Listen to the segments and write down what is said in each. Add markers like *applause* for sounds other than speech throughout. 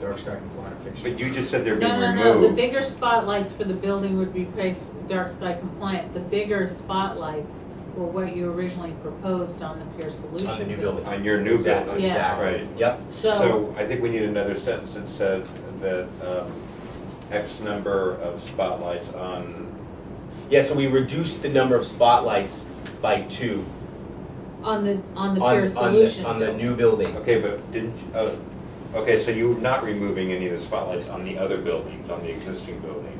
dark sky compliant fixtures. But you just said they're being No, no, removed. no, the bigger spotlights for the building would be placed dark sky compliant. The bigger spotlights were what you originally proposed on the Pier Solution. on the new Bill. building. On your new Exactly, building. Exactly. Right. Yep, So, So I think we need another sentence that said that um, X number of spotlights on, yeah, so we reduced the number of spotlights by two on the, on the on, Pier on the, Solution. on the Bill. new building. okay, but didn't, uh, okay, so you're not removing any of the spotlights on the other buildings, on the existing buildings?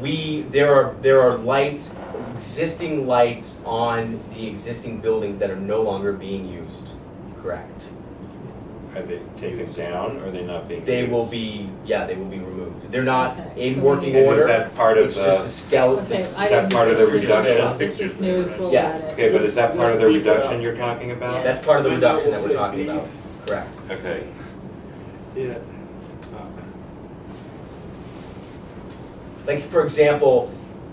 We, there are, there are lights, existing lights on the existing buildings that are no longer being used, correct? Are they taken down, or are they not being? They used? will be, yeah, they will be removed. They're not Okay, so in we- working And is order, that part of it's just the? the skeleton, Okay, this- I that didn't part of know the this was- reduction of This fixtures is and news, we'll Yeah. let it. Okay, but is that part of the Just leave it reduction out. you're talking about? that's part of the I know, reduction that we'll we're say talking B. about, correct? Okay, Yeah. Uh, Like, for example,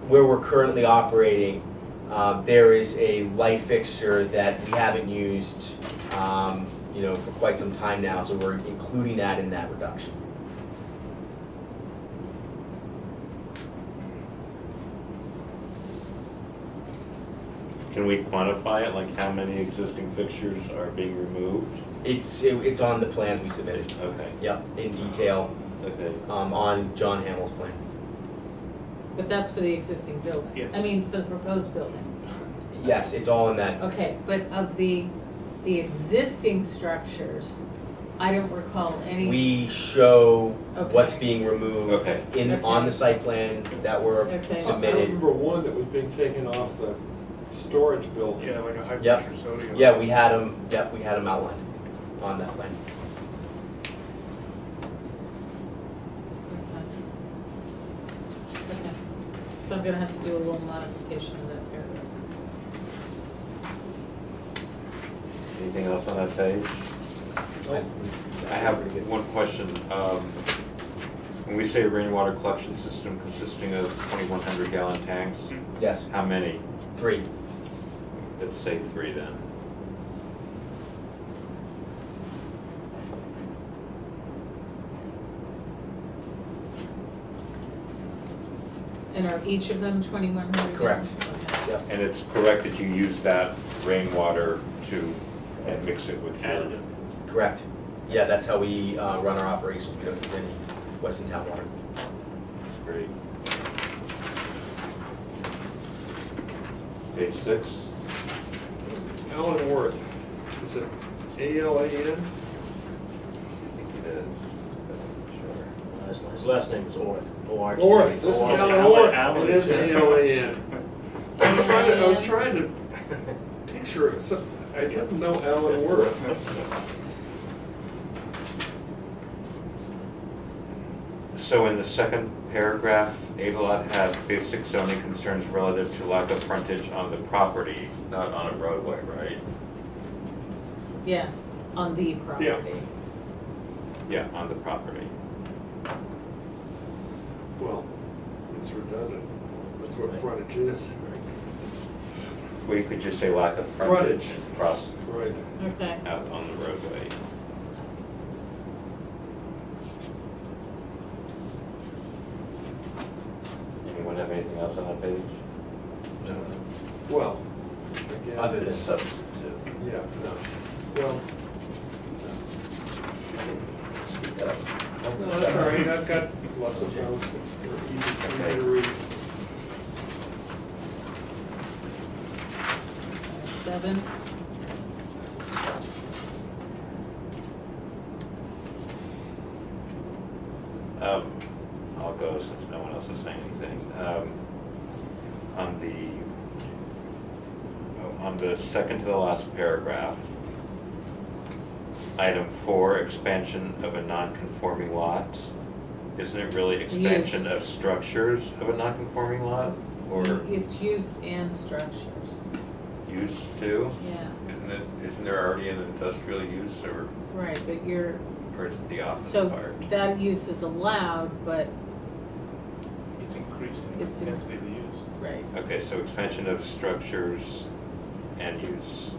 where we're currently operating, uh, there is a light fixture that we haven't used, um, you know, for quite some time now, so we're including that in that reduction. can we quantify it, like how many existing fixtures are being removed? It's, it- it's on the plan we submitted, Okay, yep, in detail, okay. um, on John Hamill's plan. But that's for the existing building. Yes. I mean, for the proposed building. Yes, it's all in that, Okay, but of the, the existing structures, I don't recall any. we show what's Okay. being removed Okay, in, on the site plans that were Okay. I- I submitted. remember one that was being taken off the storage building. Yeah, like a high Yep. pressure sodium. Yeah, we had them, yep, we had them outlined on that plan. Okay. Okay. So I'm gonna have to do a little modification of that paragraph. anything else on that page? Oh. I have one question. Um, When we say rainwater collection system consisting of 2,100 gallon tanks, Yes, how many? three. Let's say three then. And are each of them twenty-one hundred? Correct. Yep. And it's correct that you use that rainwater to, and mix it with your. Additive. Correct. Yeah, that's how we uh, run our operations. We don't use any Weston Town water. Great. Page six, Alan Worth, is it A L A N? I think it is. Sure. His his last name is Orth. O-R-T-H. Orth, this is Oh, Alan Orth. It is A L A *laughs* N. I was trying to, I was Alan. trying to picture it, so I didn't know Alan Worth. So in the second paragraph, Avalon had basic zoning concerns relative to lack of frontage on the property, not on a roadway, right? Yeah, on the property. Yeah, on the property. Well, it's redundant. That's what frontage is. Well, you could just say lack of frontage Frontage. and cross Right. Okay, out on the roadway. Anyone have anything else on that page? Well, again. Other than It's substantive. Yeah, no. Well, no, that's all right. I've got lots of notes that are easy, easy to read. seven. Um, I'll go since no one else is saying anything. Um, On the, oh, on the second to the last paragraph, item four, expansion of a non-conforming lot. Isn't it really expansion Use. of structures of a non-conforming lot? It's- Or It's use and structures, used to? yeah, Isn't it, isn't there already an industrial use or, right, but you're, or is it the office so part? that use is allowed, but, It's increasing the It's in- density of the use. right, Okay, so expansion of structures and use.